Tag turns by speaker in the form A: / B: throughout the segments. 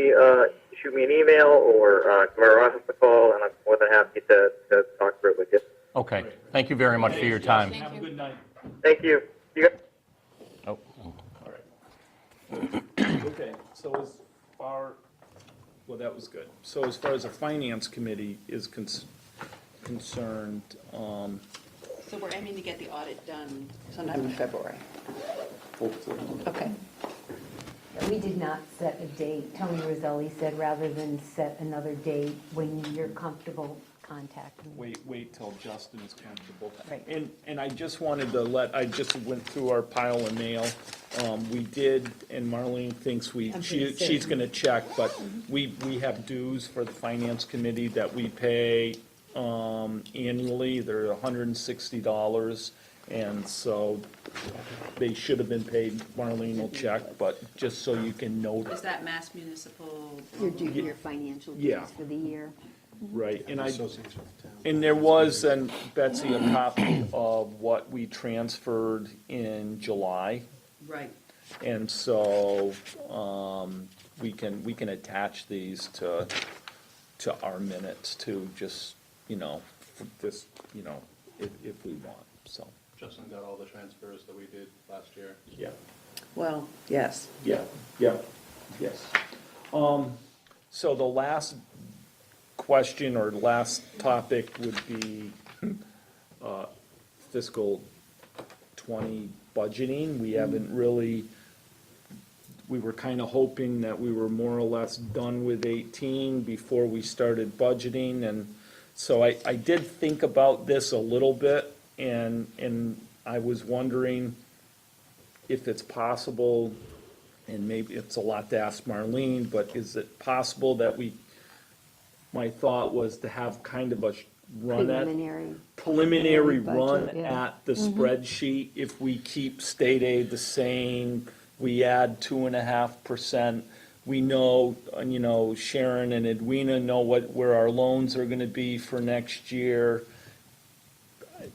A: uh, shoot me an email or uh, come over office a call, and I'm more than happy to, to talk through it with you.
B: Okay, thank you very much for your time.
C: Thank
D: Have a
C: you.
D: good night.
A: Thank you. You guys-
B: Oh,
D: All right. Okay, so as far, well, that was good. So as far as the finance committee is cons- concerned, um,
C: So we're aiming to get the audit done sometime in February.
D: hopefully,
C: Okay.
E: We did not set a date. Tony Roselli said, rather than set another date, when you're comfortable, contact me.
D: wait, wait till Justin is comfortable.
E: Right.
D: And, and I just wanted to let, I just went through our pile of mail. Um, we did, and Marlene thinks we,
E: I'm
D: she,
E: pretty
D: she's
E: certain.
D: gonna check, but we, we have dues for the finance committee that we pay, um, annually. They're hundred and sixty dollars, and so they should have been paid. Marlene will check, but just so you can note
C: Is
D: it,
C: that Mass Municipal?
E: You're doing your financial
D: Yeah.
E: dues for the year.
D: right? And I, And there was, and Betsy, a copy of what we transferred in July.
C: Right.
D: And so, um, we can, we can attach these to, to our minutes to just, you know, f- this, you know, if, if we want, so.
F: Justin got all the transfers that we did last year.
D: Yeah.
C: Well, yes.
D: Yeah, yeah, yes. Um, so the last question or last topic would be, uh, fiscal twenty budgeting. We haven't really, we were kind of hoping that we were more or less done with eighteen before we started budgeting, and so I, I did think about this a little bit, and, and I was wondering if it's possible, and maybe it's a lot to ask Marlene, but is it possible that we, my thought was to have kind of a sh- run at
E: Preliminary.
D: preliminary run
E: Budget, yeah. Mm-hmm.
D: at the spreadsheet, if we keep state aid the same, we add two and a half percent, we know, uh, you know, Sharon and Edwina know what, where our loans are gonna be for next year.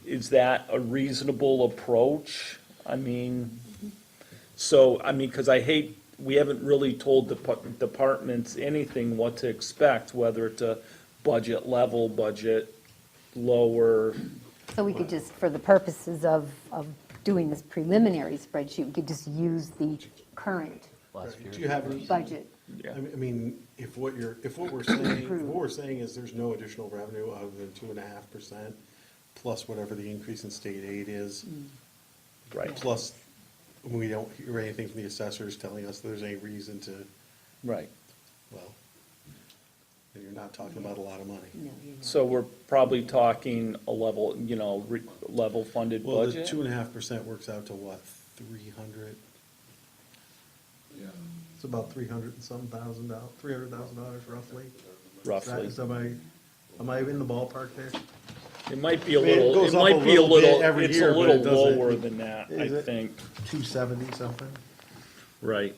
D: Is that a reasonable approach? I mean, so, I mean, cause I hate, we haven't really told the pu- departments anything what to expect, whether it's a budget level, budget lower,
E: So we could just, for the purposes of, of doing this preliminary spreadsheet, we could just use the current
B: last year.
F: Do you have any?
E: budget.
D: Yeah.
F: I mean- I mean, if what you're, if what we're saying, if
E: Approved.
F: what we're saying is there's no additional revenue other than two and a half percent, plus whatever the increase in state aid is,
D: right,
F: plus we don't hear anything from the assessors telling us there's any reason to,
D: right.
F: well, then you're not talking about a lot of money.
D: So we're probably talking a level, you know, re- level funded
F: Well, the
D: budget?
F: two and a half percent works out to what, three hundred? It's about three hundred and some thousand dollars, three hundred thousand dollars roughly. Is that-
D: Roughly.
F: Is am I, am I in the ballpark there?
D: It might be a
F: I mean, it
D: little, it
F: goes up
D: might
F: a
D: be a
F: little bit
D: little,
F: every
D: it's
F: year,
D: a
F: but
D: little
F: it doesn't-
D: lower than that, I
F: Is it?
D: think.
F: Two seventy something? Am
D: Right.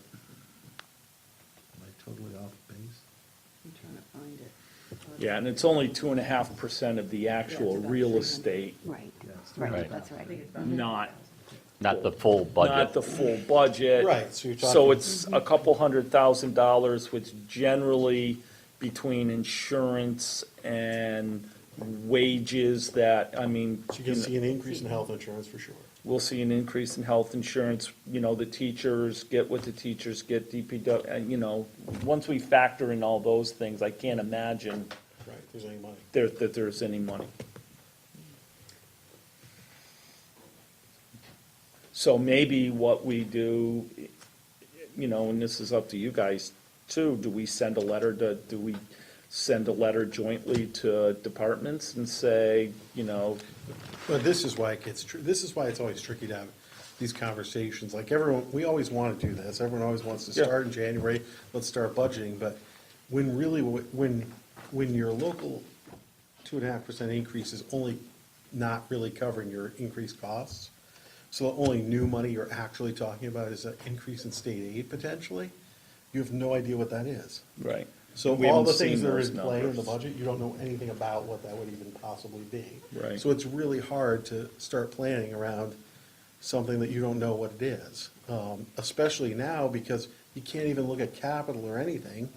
F: I totally off base?
C: I'm trying to find it.
D: Yeah, and it's only two and a half percent of the actual
C: about
D: real
C: 300.
D: estate,
E: Right,
F: Yes.
E: right,
B: Right.
E: that's right.
D: not,
B: Not the full
D: not
B: budget.
D: the full budget.
F: Right, so you're
D: So
F: talking-
D: it's a couple hundred thousand dollars, which generally between insurance and wages that, I mean.
F: So you're
D: you
F: gonna
D: know-
F: see an increase in health insurance for sure.
D: we'll see an increase in health insurance, you know, the teachers get what the teachers get, DPW, uh, you know, once we factor in all those things, I can't imagine
F: Right, if there's any money.
D: there, that there's any money. So maybe what we do, you know, and this is up to you guys too, do we send a letter to, do we send a letter jointly to departments and say, you know,
F: But this is why it gets, tr- this is why it's always tricky to have these conversations, like everyone, we always wanna do this, everyone always wants to
D: Yeah.
F: start in January, let's start budgeting, but when really, wh- when, when your local two and a half percent increase is only not really covering your increased costs, so the only new money you're actually talking about is an increase in state aid potentially, you have no idea what that is.
D: right.
F: So
D: We
F: all
D: haven't
F: the things
D: seen
F: that are
D: those
F: in play in the
D: numbers.
F: budget, you don't know anything about what that would even possibly be.
D: Right.
F: So it's really hard to start planning around something that you don't know what it is. Um, especially now because you can't even look at capital or anything